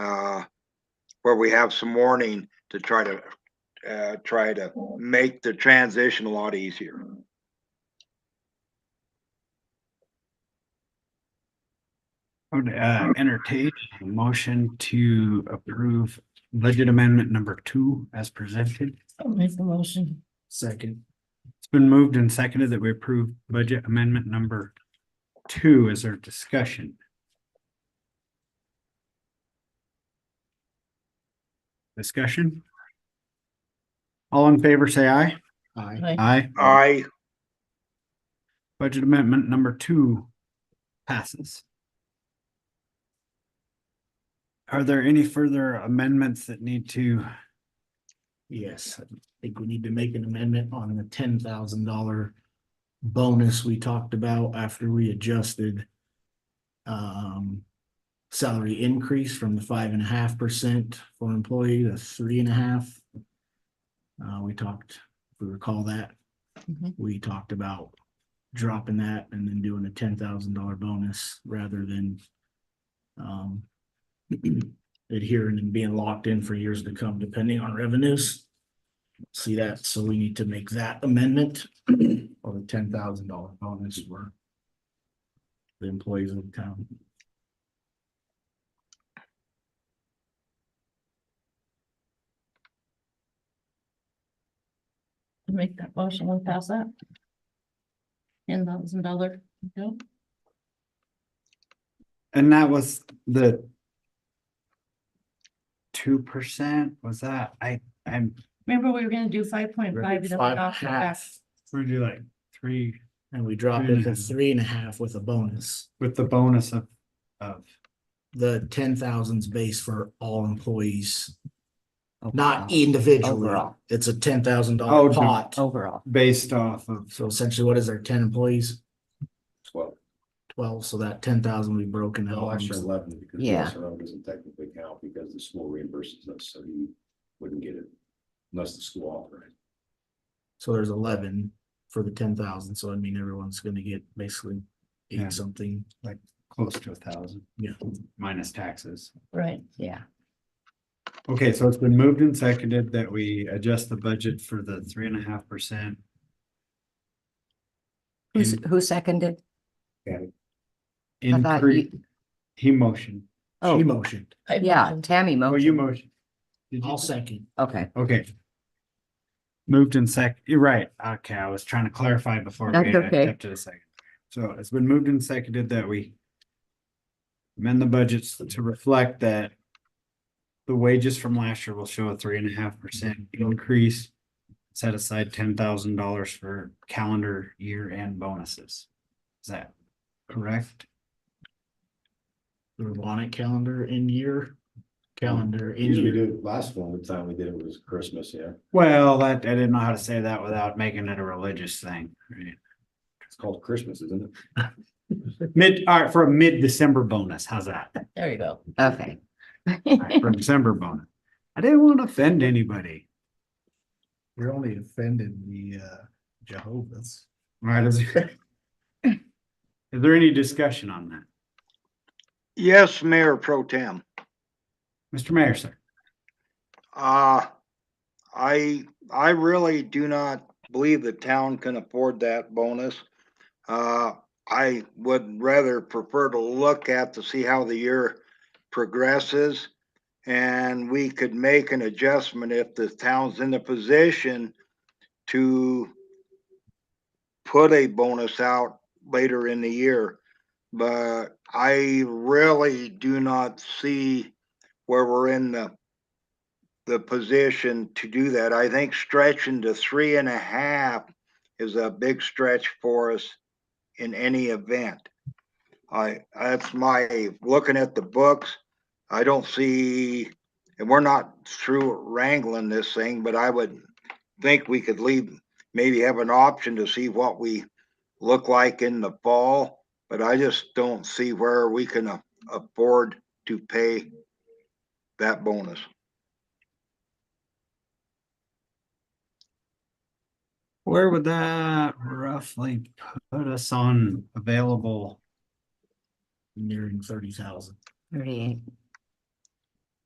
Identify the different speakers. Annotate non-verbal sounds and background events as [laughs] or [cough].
Speaker 1: uh, where we have some warning to try to, uh, try to make the transition a lot easier.
Speaker 2: I would uh, entertain a motion to approve budget amendment number two as presented.
Speaker 3: I'll make the motion. Second.
Speaker 2: It's been moved and seconded that we approve budget amendment number two as our discussion. Discussion? All in favor, say aye.
Speaker 3: Aye.
Speaker 2: Aye.
Speaker 1: I,
Speaker 2: Budget amendment number two passes. Are there any further amendments that need to,
Speaker 3: Yes, I think we need to make an amendment on the ten thousand dollar bonus we talked about after we adjusted um, salary increase from the five and a half percent for employee to three and a half. Uh, we talked, if we recall that, we talked about dropping that and then doing a ten thousand dollar bonus rather than um, adhering and being locked in for years to come, depending on revenues. See that, so we need to make that amendment or the ten thousand dollar bonus for the employees of the town.
Speaker 4: Make that motion, we'll pass that. Ten thousand dollar, no,
Speaker 2: and that was the two percent, was that, I, I'm,
Speaker 4: remember we were gonna do five point five.
Speaker 3: Five half,
Speaker 2: we do like three
Speaker 3: and we dropped it to three and a half with a bonus.
Speaker 2: with the bonus of, of.
Speaker 3: The ten thousand's base for all employees, not individually.
Speaker 5: Oh, Overall.
Speaker 3: It's a ten thousand
Speaker 2: Oh,
Speaker 3: dollar
Speaker 2: to-
Speaker 3: pot.
Speaker 5: overall.
Speaker 2: Based off of,
Speaker 3: So essentially, what is there, ten employees?
Speaker 6: Twelve.
Speaker 3: Twelve, so that ten thousand will be broken out.
Speaker 6: No,
Speaker 3: on-
Speaker 6: actually eleven, because the
Speaker 5: Yeah.
Speaker 6: SRO doesn't technically count because the school reimburses us, so he wouldn't get it unless the school authorized.
Speaker 3: So there's eleven for the ten thousand, so I mean, everyone's gonna get basically
Speaker 2: Yeah.
Speaker 3: eight something,
Speaker 2: close to a thousand,
Speaker 3: yeah.
Speaker 2: minus taxes.
Speaker 4: Right,
Speaker 5: Yeah,
Speaker 2: Okay, so it's been moved and seconded that we adjust the budget for the three and a half percent.
Speaker 5: who's, who seconded? I thought
Speaker 2: Increase,
Speaker 5: you-
Speaker 2: he motioned.
Speaker 3: She
Speaker 5: Oh,
Speaker 3: motioned,
Speaker 4: I
Speaker 5: yeah,
Speaker 4: motioned.
Speaker 5: Tammy
Speaker 2: Oh, you
Speaker 5: motion,
Speaker 2: motion. Did
Speaker 3: I'll
Speaker 2: you?
Speaker 3: second,
Speaker 5: okay,
Speaker 2: Okay. Moved in sec, you're right. Okay, I was trying to clarify before.
Speaker 5: That's
Speaker 2: we
Speaker 5: okay.
Speaker 2: Up to the second. So it's been moved and seconded that we amend the budgets to reflect that the wages from last year will show a three and a half percent increase. Set aside ten thousand dollars for calendar year and bonuses. Is that correct?
Speaker 3: the Ravonic calendar in year, calendar in
Speaker 6: Usually we
Speaker 3: year.
Speaker 6: do, last one, the time we did it was Christmas, yeah,
Speaker 2: Well, that, I didn't know how to say that without making it a religious thing. right?
Speaker 6: it's called Christmas, isn't it?
Speaker 2: Mid, all right, for a mid-December bonus, how's that?
Speaker 4: There you go.
Speaker 5: okay.
Speaker 2: from December bonus. I didn't want to offend anybody.
Speaker 3: You're only offending the uh Jehovah's.
Speaker 2: All right, is [laughs] is there any discussion on that?
Speaker 1: yes, Mayor Pro Tem.
Speaker 2: Mr. Mayor, sir?
Speaker 1: Uh, I, I really do not believe the town can afford that bonus. Uh, I would rather prefer to look at to see how the year progresses. And we could make an adjustment if the town's in the position to put a bonus out later in the year. But I really do not see where we're in the the position to do that. I think stretching to three and a half is a big stretch for us in any event. I, that's my, looking at the books, I don't see, and we're not through wrangling this thing, but I would think we could leave, maybe have an option to see what we look like in the fall, but I just don't see where we can a- afford to pay that bonus.
Speaker 2: Where would that roughly put us on available?
Speaker 3: Nearing thirty thousand.
Speaker 5: Thirty-eight.